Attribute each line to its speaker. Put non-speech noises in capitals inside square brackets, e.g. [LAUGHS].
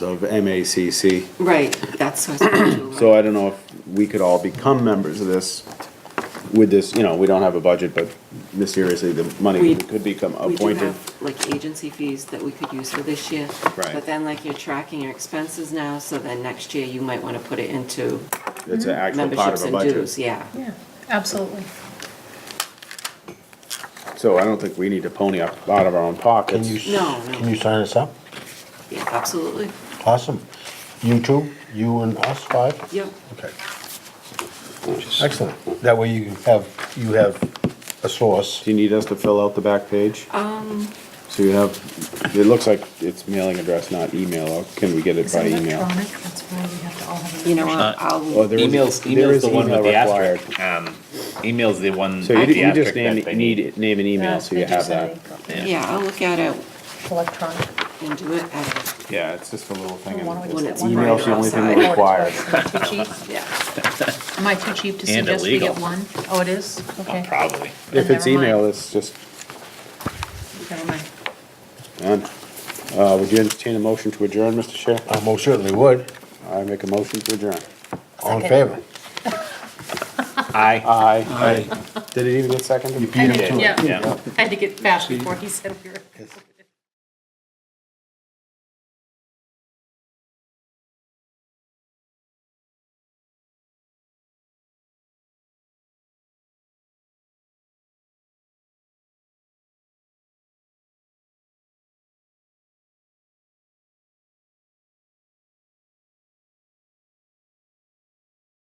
Speaker 1: of MACC.
Speaker 2: Right, that's what I do.
Speaker 1: So I don't know if we could all become members of this with this, you know, we don't have a budget, but mysteriously the money
Speaker 2: We-
Speaker 1: could become
Speaker 2: We do
Speaker 1: appointed.
Speaker 2: have, like, agency fees that we could use for this year.
Speaker 1: Right.
Speaker 2: But then, like, you're tracking your expenses now, so then next year you might want to put it into
Speaker 1: It's an actual part
Speaker 2: mm-hmm, memberships
Speaker 1: of a
Speaker 2: and dues,
Speaker 1: budget.
Speaker 2: yeah.
Speaker 3: Yeah, absolutely.
Speaker 1: So I don't think we need to pony up out of our own
Speaker 4: Can
Speaker 1: pockets.
Speaker 4: you,
Speaker 2: No,
Speaker 4: s-
Speaker 2: no.
Speaker 4: can you sign us up?
Speaker 2: Yeah, absolutely.
Speaker 4: Awesome. You two, you and us five?
Speaker 2: Yep,
Speaker 4: Okay. Excellent. That way you have, you have a source.
Speaker 1: Do you need us to fill out the back page? Um. So you have, it looks like it's mailing address, not email. Or Can we get it
Speaker 3: Is
Speaker 1: by
Speaker 3: it
Speaker 1: email?
Speaker 3: electronic? That's why we have to all have.
Speaker 2: you know, what,
Speaker 5: Uh,
Speaker 1: Oh,
Speaker 2: I'll,
Speaker 1: there is-
Speaker 5: Emails,
Speaker 1: there
Speaker 5: emails
Speaker 1: is
Speaker 5: the one with the
Speaker 1: email required.
Speaker 5: asterisk. Um, emails the one.
Speaker 1: So
Speaker 5: with
Speaker 1: you
Speaker 5: the
Speaker 1: you just
Speaker 5: asterisk
Speaker 1: name,
Speaker 5: that they
Speaker 1: need, name an email so you have that.
Speaker 2: yeah, I'll look at it
Speaker 3: Electronic.
Speaker 2: and do it at,
Speaker 1: Yeah, it's just a little thing.
Speaker 3: Why don't we
Speaker 1: and
Speaker 3: just
Speaker 2: When
Speaker 3: get
Speaker 2: it's
Speaker 3: one
Speaker 2: email's
Speaker 3: right
Speaker 2: the only thing
Speaker 3: outside?
Speaker 1: we're
Speaker 3: Oh,
Speaker 1: required.
Speaker 3: it's too
Speaker 2: [LAUGHS]
Speaker 3: cheap?
Speaker 2: yeah,
Speaker 3: Am I too cheap to
Speaker 5: And
Speaker 3: suggest we get
Speaker 5: illegal.
Speaker 3: one? Oh, it is?
Speaker 5: Oh,
Speaker 3: Okay.
Speaker 5: Probably.
Speaker 1: If
Speaker 3: Then
Speaker 1: it's
Speaker 3: never mind.
Speaker 1: email, it's just,
Speaker 3: Never mind.
Speaker 1: done. Uh, would you entertain a motion to adjourn, Mr. Chair?
Speaker 4: I most certainly would.
Speaker 1: I make a motion to adjourn.
Speaker 4: All in
Speaker 3: Second.
Speaker 4: favor?
Speaker 5: Aye.
Speaker 1: Aye. Aye. Did it even get seconded?
Speaker 4: You beat him to it.
Speaker 3: Yeah,
Speaker 5: Yeah.
Speaker 3: I had to get fast before he said we were.
Speaker 4: Yes.